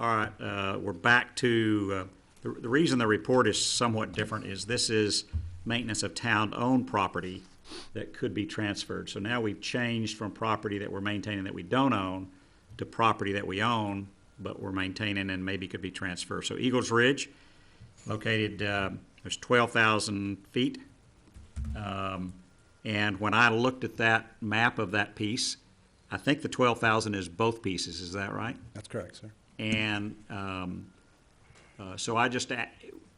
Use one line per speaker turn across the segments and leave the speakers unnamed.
All right, uh, we're back to, uh, the the reason the report is somewhat different is this is maintenance of town-owned property that could be transferred. So now we've changed from property that we're maintaining that we don't own to property that we own, but we're maintaining and maybe could be transferred. So Eagles Ridge, located, uh, there's 12,000 feet. Um, And when I looked at that map of that piece, I think the 12,000 is both pieces, is that right?
That's correct, sir.
And um, uh, so I just, a-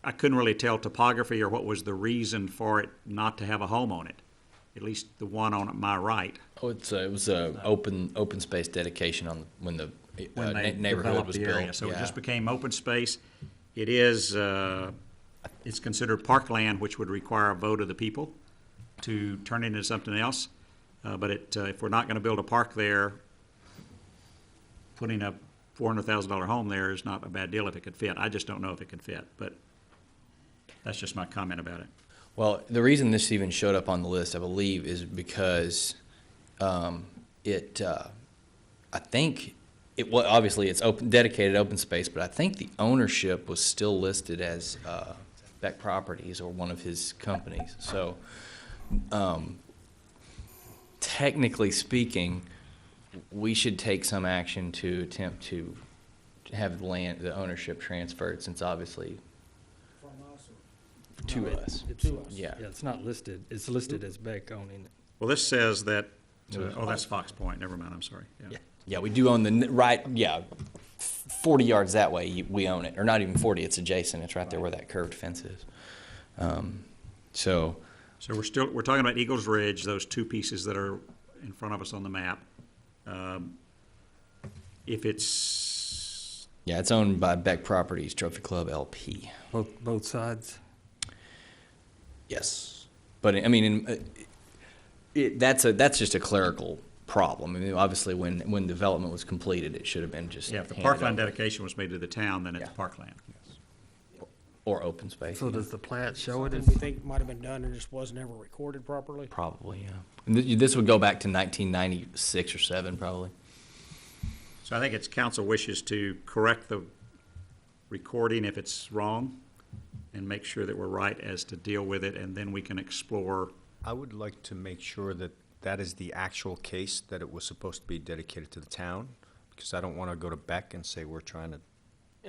I couldn't really tell topography or what was the reason for it not to have a home on it, at least the one on my right.
Oh, it's a, it was a open open space dedication on when the uh,
when
na-
they
neighborhood
developed
was
the
built.
area. So it
yeah.
just became open space. It is, uh, it's considered parkland, which would require a vote of the people to turn it into something else. Uh, But it, uh, if we're not going to build a park there, putting a $400,000 home there is not a bad deal if it could fit. I just don't know if it can fit, but that's just my comment about it.
Well, the reason this even showed up on the list, I believe, is because um, it, uh, I think, it well, obviously it's open, dedicated open space, but I think the ownership was still listed as uh, Beck Properties or one of his companies. So um, technically speaking, we should take some action to attempt to have the land, the ownership transferred, since obviously to us.
To us.
Yeah.
Yeah, it's not listed, it's listed as Beck owning it.
Well, this says that, oh, that's Fox Point, never mind, I'm sorry. Yeah.
Yeah, we do own the n- right. Yeah, forty yards that way, you- we own it, or not even forty. It's adjacent. It's right there where that curved fence is. Um, so
So we're still, we're talking about Eagles Ridge, those two pieces that are in front of us on the map. Um, If it's,
yeah, it's owned by Beck Properties Trophy Club LP.
Both, both sides?
Yes, but I mean, in, uh, it, that's a that's just a clerical problem. I mean, obviously, when when development was completed, it should have been just
yeah, if the
handed
parkland
over,
dedication was made to the town, then it's
Yeah.
parkland.
or open space.
So does the plat show it
Something
as,
we think might have been done and just wasn't ever recorded properly.
Probably, yeah. And th- This would go back to 1996 or seven, probably.
So I think it's council wishes to correct the recording if it's wrong and make sure that we're right as to deal with it, and then we can explore.
I would like to make sure that that is the actual case, that it was supposed to be dedicated to the town, because I don't want to go to Beck and say, we're trying to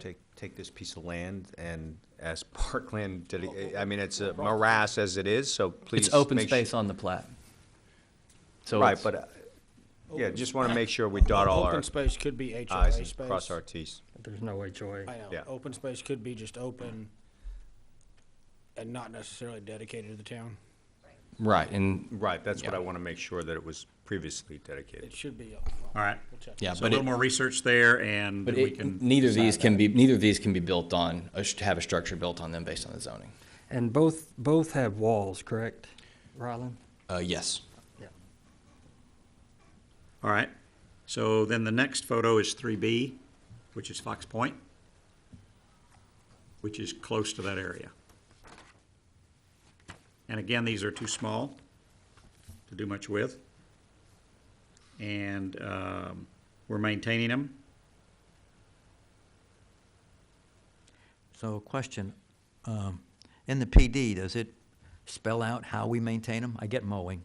take, take this piece of land and as parkland, dedi- I mean, it's a morass as it is, so please.
It's open
make su-
space on the plat. So
Right,
it's-
but, uh, yeah, just want to make sure we dot all our
Open space could be
i's
HOA
and
space.
cross our t's.
there's no HOA?
I know,
yeah.
open space could be just open and not necessarily dedicated to the town.
Right, and
Right, that's what
Yeah.
I want to make sure that it was previously dedicated.
It should be. uh,
All right.
yeah,
So a
but
little
it,
more research there, and
but
we
it,
can.
neither of these
decide
can be neither of these can be built on a sh- have a structure built on them based on the zoning.
And both, both have walls, correct, Rylan?
Uh, yes.
that. All right. So then the next photo is three B, which is Fox Point, which is close to that area. And again, these are too small to do much with. And um, we're maintaining them.
So question, um, in the PD, does it spell out how we maintain them? I get mowing.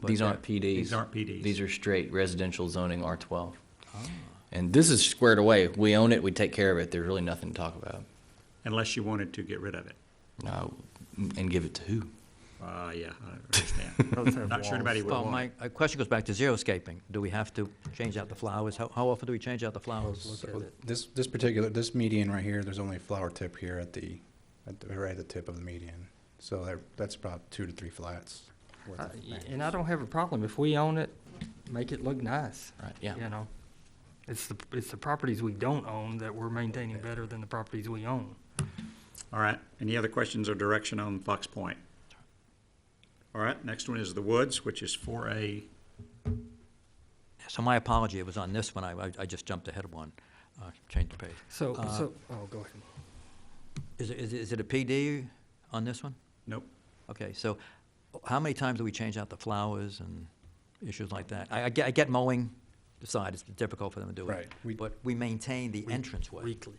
but
These aren't
that-
PDs.
These aren't PDs.
These are straight residential zoning R twelve. And this is squared away. We own it. We take care of it. There's really nothing to talk about.
unless you wanted to get rid of it.
No, and give it to who?
Uh, yeah, I
Both have
understand. Not sure
walls.
anybody would
Well,
want
my,
it.
my question goes back to xeriscaping. Do we have to change out the flowers? How, how often do we change out the flowers?
Look at it.
This, this particular, this median right here, there's only a flower tip here at the, at the, right at the tip of the median. So that, that's about two to three flats. worth
Uh,
of
y-
land.
And I don't have a problem, if we own it, make it look nice.
Right, yeah.
You know, it's the, it's the properties we don't own that we're maintaining better than the properties we own.
All right, any other questions or direction on Fox Point? All right, next one is the Woods, which is four A.
So my apology, it was on this one, I, I- I just jumped ahead of one, uh, changed the page.
So,
Uh,
so, oh, go ahead.
Is, it- is, it- is it a PD on this one?
Nope,
Okay, so how many times do we change out the flowers and issues like that? I, I get, I get mowing, decide it's difficult for them to do it.
Right. We-
But we maintain the entranceway.
weekly.